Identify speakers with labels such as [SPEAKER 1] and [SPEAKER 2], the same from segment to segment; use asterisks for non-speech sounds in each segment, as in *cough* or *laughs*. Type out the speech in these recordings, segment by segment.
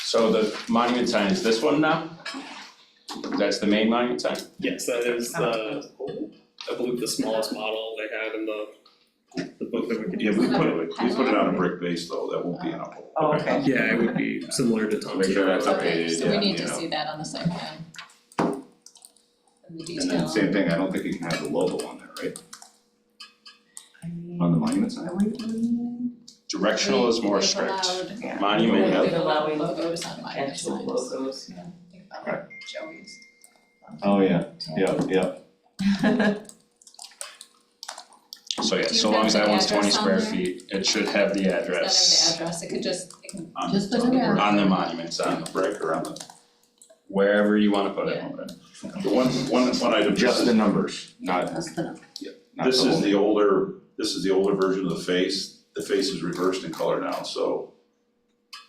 [SPEAKER 1] So the monument sign is this one now? That's the main monument sign?
[SPEAKER 2] Yes, that is the, I believe the smallest model they have in the, the book that we could
[SPEAKER 3] Yeah,
[SPEAKER 2] use.
[SPEAKER 3] we put it, we put it on a brick base though, that won't be an uphold.
[SPEAKER 4] Oh, okay.
[SPEAKER 2] Yeah, it would be similar to Tom's.
[SPEAKER 3] Make sure that's
[SPEAKER 2] Hero.
[SPEAKER 3] okay,
[SPEAKER 5] Okay, so we
[SPEAKER 3] yeah,
[SPEAKER 5] need
[SPEAKER 3] you
[SPEAKER 5] to
[SPEAKER 3] know.
[SPEAKER 5] see that on the site plan. And the
[SPEAKER 3] And then
[SPEAKER 5] detail.
[SPEAKER 3] same thing, I don't think you can have the logo on there, right? On the monument sign?
[SPEAKER 1] Directional is more
[SPEAKER 5] We've
[SPEAKER 1] strict.
[SPEAKER 5] allowed-
[SPEAKER 1] Monument,
[SPEAKER 5] We've
[SPEAKER 1] yep.
[SPEAKER 5] allowed
[SPEAKER 4] Allowing
[SPEAKER 5] logos on minor signs.
[SPEAKER 4] Actual logos.
[SPEAKER 5] Think about that, Joey's.
[SPEAKER 3] Oh, yeah, yeah.
[SPEAKER 1] So yeah,
[SPEAKER 5] Do you
[SPEAKER 1] so long
[SPEAKER 5] have
[SPEAKER 1] as that
[SPEAKER 5] the
[SPEAKER 1] one's twenty
[SPEAKER 5] address on
[SPEAKER 1] square
[SPEAKER 5] there?
[SPEAKER 1] feet, it should have the
[SPEAKER 5] It's not in the
[SPEAKER 1] address
[SPEAKER 5] address, it could just, it can,
[SPEAKER 3] On
[SPEAKER 5] Just put it
[SPEAKER 3] on the
[SPEAKER 5] there.
[SPEAKER 3] brick-
[SPEAKER 1] on the monument
[SPEAKER 3] On
[SPEAKER 1] sign,
[SPEAKER 3] the brick or on the.
[SPEAKER 1] wherever you wanna put it.
[SPEAKER 5] Yeah.
[SPEAKER 3] The one, one, one item.
[SPEAKER 6] Just the numbers,
[SPEAKER 3] Not,
[SPEAKER 4] That's the number.
[SPEAKER 3] not the
[SPEAKER 6] This is
[SPEAKER 3] whole-
[SPEAKER 6] the older, this is the older version of the face, the face is reversed in color now, so.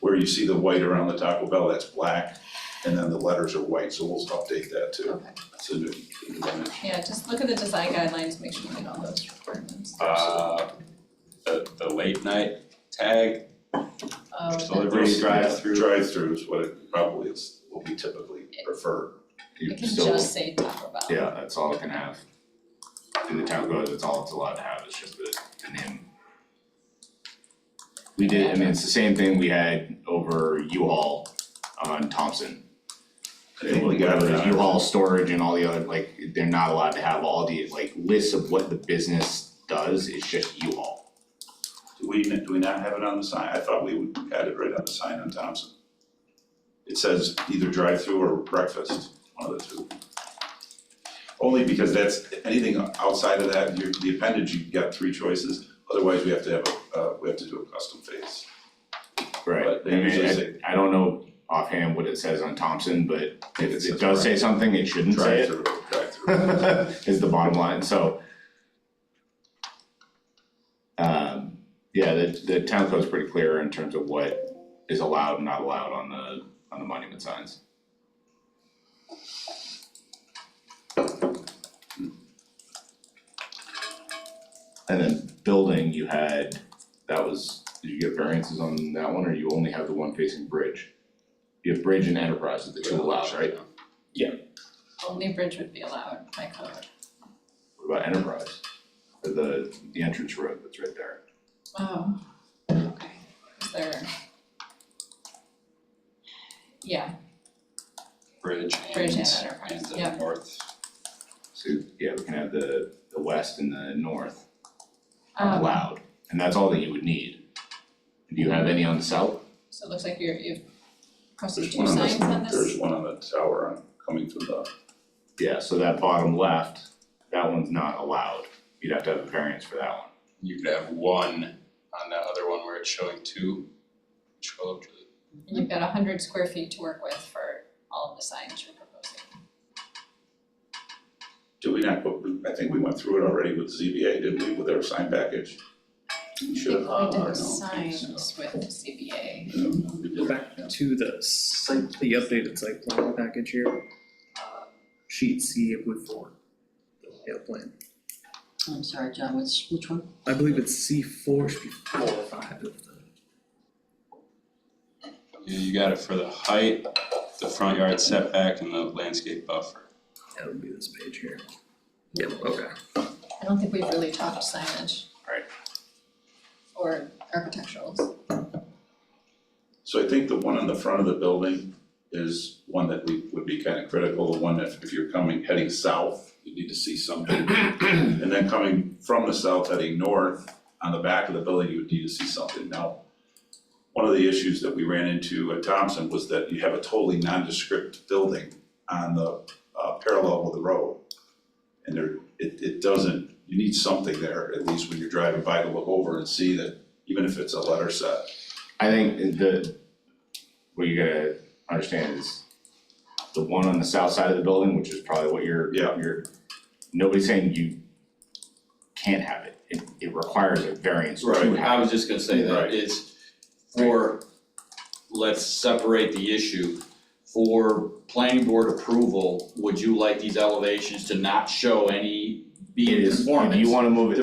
[SPEAKER 6] Where you see the white around the Taco Bell, that's black, and then the letters are white, so we'll update that too.
[SPEAKER 5] Okay.
[SPEAKER 6] It's a new, a new dimension.
[SPEAKER 5] yeah, just look at the design guidelines, make sure we get all those requirements.
[SPEAKER 1] Uh, the the late night tag,
[SPEAKER 5] Oh, that-
[SPEAKER 1] delivery, drive
[SPEAKER 6] through. Drive through is what it probably is, will be typically preferred.
[SPEAKER 3] you
[SPEAKER 5] It can
[SPEAKER 3] still-
[SPEAKER 5] just say Taco Bell.
[SPEAKER 3] yeah, that's all it can have. In the town code, that's all it's allowed to have, it's just the, the name. We did, I mean, it's the same thing we had over U-Haul on Thompson.
[SPEAKER 6] I
[SPEAKER 3] I think
[SPEAKER 6] think we got
[SPEAKER 3] whatever
[SPEAKER 6] it.
[SPEAKER 3] U-Haul storage and all the other, like, they're not allowed to have all the, like, lists of what the business does, it's just U-Haul.
[SPEAKER 6] Do we, do we not have it on the sign? I thought we would had it right on the sign on Thompson. It says either drive-through or breakfast, one of the two. Only because that's, anything outside of that, your, the appendage, you've got three choices, otherwise we have to have a, uh, we have to do a custom face. But
[SPEAKER 3] I
[SPEAKER 6] they
[SPEAKER 3] mean,
[SPEAKER 6] usually
[SPEAKER 3] I,
[SPEAKER 6] say-
[SPEAKER 3] I don't know offhand what it says on Thompson, but
[SPEAKER 6] It
[SPEAKER 3] if
[SPEAKER 6] says
[SPEAKER 3] it does say something, it shouldn't say it,
[SPEAKER 6] Drive-through, drive-through.
[SPEAKER 3] *laughs* is the bottom line, so. Um, yeah, the, the town code's pretty clear in terms of what is allowed and not allowed on the, on the monument signs. And then building, you had, that was, did you get variances on that one, or you only have the one facing bridge? You have bridge and enterprise are the two allowed, right?
[SPEAKER 5] Only bridge would be allowed by code.
[SPEAKER 3] What about enterprise? Or the, the entrance road that's right there?
[SPEAKER 5] Oh, okay, is there? Yeah,
[SPEAKER 1] bridge
[SPEAKER 5] bridge and
[SPEAKER 1] and and
[SPEAKER 5] enterprise,
[SPEAKER 1] the
[SPEAKER 5] yeah,
[SPEAKER 1] north.
[SPEAKER 3] So, yeah, we can have the, the west and the north
[SPEAKER 6] Oh,
[SPEAKER 5] um,
[SPEAKER 3] allowed, and that's all that you would need. Do you have any on the south?
[SPEAKER 5] so it looks like you're, you've posted
[SPEAKER 6] There's
[SPEAKER 5] two
[SPEAKER 6] one on
[SPEAKER 5] signs on
[SPEAKER 6] the,
[SPEAKER 5] this.
[SPEAKER 6] there's one on the tower on, coming from the,
[SPEAKER 3] Yeah, so that bottom left, that one's not allowed, you'd have to have a variance for that one.
[SPEAKER 1] You could have one on that other one where it's showing two. Scroll up to the-
[SPEAKER 5] And you've got a hundred square feet to work with for all of the signs you're proposing.
[SPEAKER 6] did we not, go- I think we went through it already with ZBA, didn't we, with their sign package? We should have.
[SPEAKER 5] I think
[SPEAKER 6] uh,
[SPEAKER 5] we
[SPEAKER 6] no,
[SPEAKER 5] did
[SPEAKER 6] so.
[SPEAKER 5] signs with CBA.
[SPEAKER 6] No, we
[SPEAKER 2] Go
[SPEAKER 6] didn't.
[SPEAKER 2] back to the site, the updated site plan package here. Uh, Sheet C of wood four, the layout plan.
[SPEAKER 4] I'm sorry, John, which, which one?
[SPEAKER 2] I believe it's C four, should be four or five of the.
[SPEAKER 1] Yeah, you got it for the height, the front yard setback and the landscape buffer.
[SPEAKER 2] That would be this page here. Yep, okay.
[SPEAKER 5] I don't think we've really talked signage.
[SPEAKER 3] Right.
[SPEAKER 5] Or architecturals.
[SPEAKER 6] So I think the one on the front of the building is one that we, would be kind of critical, the one that if you're coming, heading south, you need to see something. And then coming from the south heading north, on the back of the building, you would need to see something. Now, one of the issues that we ran into at Thompson was that you have a totally nondescript building on the, uh, parallel with the road. And there, it, it doesn't, you need something there, at least when you're driving by to look over and see that, even if it's a letter set.
[SPEAKER 3] I think the, what you gotta understand is the one on the south side of the building, which is probably what you're,
[SPEAKER 6] Yeah.
[SPEAKER 3] you're, nobody's saying you can't have it. It, it requires a variance to have it.
[SPEAKER 6] Right.
[SPEAKER 7] I was just gonna say
[SPEAKER 6] Right.
[SPEAKER 7] that it's for, let's separate the issue. For planning board approval, would you like these elevations to not show any
[SPEAKER 3] It
[SPEAKER 7] being
[SPEAKER 3] is,
[SPEAKER 7] conformance?
[SPEAKER 3] if you wanna move it